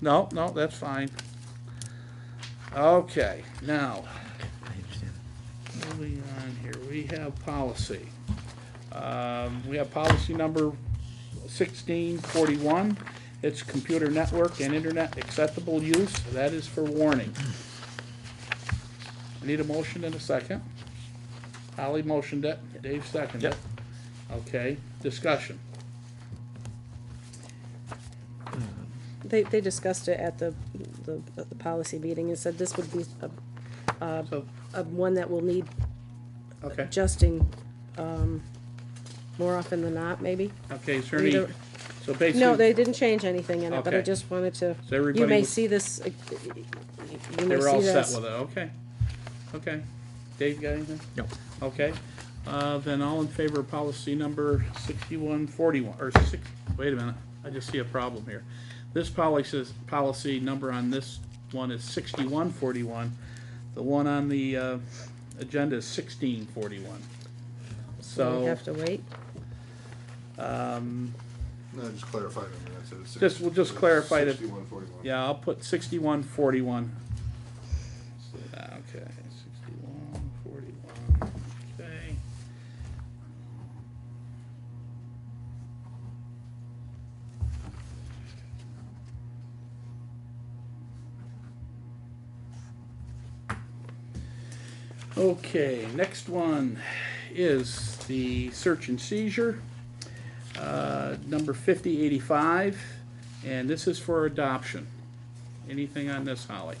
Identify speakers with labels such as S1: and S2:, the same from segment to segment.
S1: No, no, that's fine. Okay, now,
S2: I understand.
S1: moving on here, we have policy. Um, we have policy number sixteen forty-one. It's computer network and internet acceptable use, that is for warning. I Need a motion and a second. Holly motioned it, Dave seconded it. Okay, discussion.
S3: They, they discussed it at the, the, at the policy meeting and said this would be a, Uh,
S1: So,
S3: a one that will need
S1: okay,
S3: adjusting, um, more often than not, maybe?
S1: okay, is there any,
S3: Either-
S1: so basically.
S3: No, they didn't change anything in it, but I
S1: Okay.
S3: just wanted to,
S1: So everybody
S3: you may
S1: was-
S3: see this, uh, you
S1: They
S3: may
S1: were all
S3: see
S1: set
S3: this.
S1: with it, okay. Okay. Dave, got anything?
S2: No.
S1: Okay. Uh, then all in favor of policy number sixty-one forty-one, or six, wait a minute, I just see a problem here. This policy, is- policy number on this one is sixty-one forty-one. The one on the, uh, agenda is sixteen forty-one.
S3: We
S1: So,
S3: have to wait.
S4: No, just clarify them, that's it. It's
S1: Just- we'll just
S4: six-
S1: clarify the-
S4: Sixty-one forty-one.
S1: yeah, I'll put sixty-one forty-one. Ah, Okay, sixty-one forty-one, okay. Okay, next one is the search and seizure, uh, number 5085, and this is for adoption. Anything on this, Holly?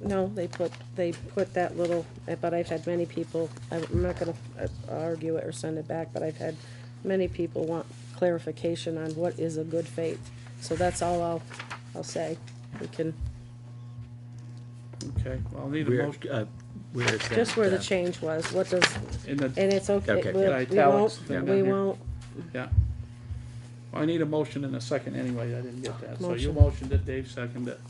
S3: No, they put, they put that little, but I've had many people, I'm not gonna uh, argue it or send it back, but I've had many people want clarification on what is a good faith. So that's all I'll, I'll say. We can,
S1: Okay, well, I'll need a
S2: Where,
S1: motion
S2: uh, where is that?
S3: just where the
S2: uh,
S3: change was, what does,
S1: in the,
S3: and it's okay,
S2: Okay.
S3: we'll-
S1: Yeah,
S3: we
S1: italics,
S3: won't,
S1: yeah.
S3: we won't,
S1: yeah. Well, I need a motion in a second anyway, I didn't get that. So you
S3: Motion.
S1: motioned it, Dave seconded it.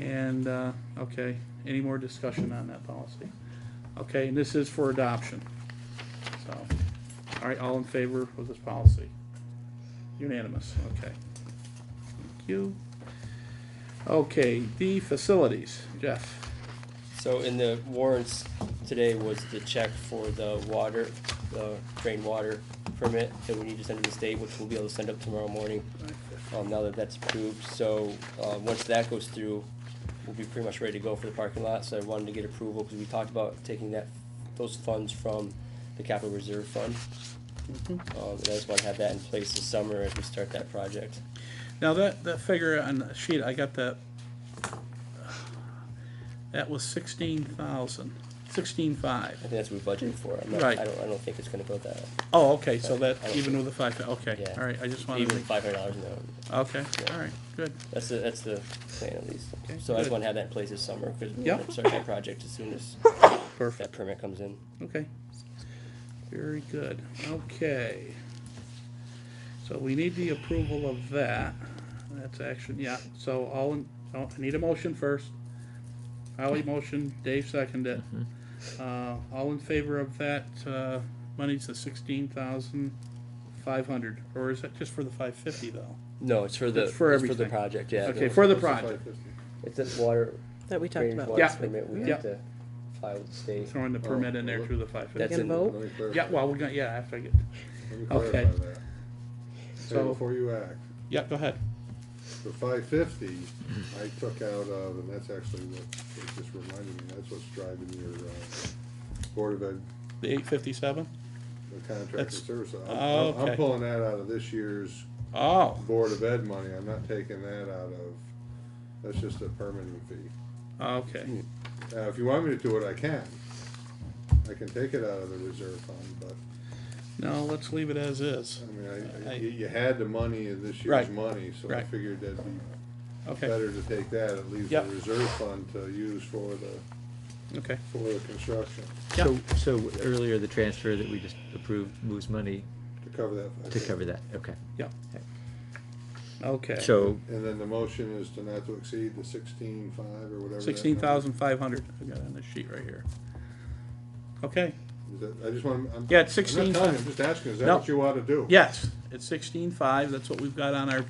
S1: And, uh, okay, any more discussion on that policy? Okay, and this is for adoption. So, all right, all in favor of this policy? Unanimous, okay. Thank you. Okay, the facilities, Jeff.
S5: So in the warrants today was the check for the water, the drain water permit that we need to send to the state, which we'll be able to send up tomorrow morning, um, now that that's approved. So, uh, once that goes through, we'll be pretty much ready to go for the parking lot, so I wanted to get approval, because we talked about taking that, those funds from the capital reserve fund. Um, and I just wanna have that in place this summer as we start that project.
S1: Now that, that figure on the sheet, I got that, that was sixteen thousand, sixteen five.
S5: I think that's what we budgeted for, I'm not,
S1: Right.
S5: I don't, I don't think it's gonna go that,
S1: Oh, okay, so
S5: Right,
S1: that,
S5: I don't
S1: even with the five, okay,
S5: yeah.
S1: all right, I just wanted to,
S5: Even
S1: make-
S5: five hundred dollars in there.
S1: okay, all right, good.
S5: That's the, that's the plan at least.
S1: Okay,
S5: So I
S1: good.
S5: just wanna have that in place this summer, cause we
S1: Yeah.
S5: wanna start that project as soon as that
S1: Perfect.
S5: permit comes in.
S1: Okay. Very good, okay. So we need the approval of that, that's action, yeah, so all, in- oh, I need a motion first. Holly motion, Dave seconded it. Uh, all in favor of that, uh, money's the sixteen thousand five hundred, or is that just for the five fifty though?
S5: No, it's for the,
S1: It's
S5: it's
S1: for
S5: for the
S1: everything.
S5: project, yeah.
S1: Okay, for the project,
S5: It's a water,
S3: that we talked
S5: drainage
S3: about.
S5: water
S1: Yeah.
S5: permit, we
S1: Yeah.
S5: have to file with the state.
S1: throwing the permit in there through the five fifty.
S5: That's
S3: Get a
S5: in-
S3: vote?
S1: Yeah, well, we're gonna, yeah, after I get, okay.
S4: Say
S1: So-
S4: before you act,
S1: yeah, go ahead.
S4: the five fifty, I took out of, and that's actually what, it just reminded me, that's what's driving your, uh, Board of Ed
S1: The eight fifty-seven?
S4: the contractor
S1: That's-
S4: service. I'm-
S1: Oh,
S4: I'm-
S1: okay.
S4: I'm pulling that out of this year's
S1: Oh,
S4: Board of Ed money, I'm not taking that out of, that's just a permitting fee.
S1: okay.
S4: Now, if you want me to do it, I can. I can take it out of the reserve fund, but,
S1: No, let's leave it as is.
S4: I mean, I-
S1: I-
S4: I, you, you had the money in this year's
S1: Right.
S4: money, so I
S1: Right.
S4: figured that'd be
S1: Okay,
S4: better to take that, it leaves the
S1: Yep.
S4: reserve fund to use for the,
S1: okay.
S4: for the construction,
S2: So, so earlier, the transfer that we just approved moves money
S4: to cover that.
S2: to cover that, okay.
S1: Yeah. Okay.
S2: So,
S4: And then the motion is to not to exceed the sixteen-five or whatever. that
S1: Sixteen
S4: number-
S1: thousand five hundred, I got it on this sheet right here. Okay,
S4: Is that- I just want, I'm.
S1: Yeah, it's
S4: I'm not telling you,
S1: 16.5.
S4: I'm just asking, is
S1: No.
S4: that what you ought to do?
S1: yes, it's sixteen five, that's what we've got on our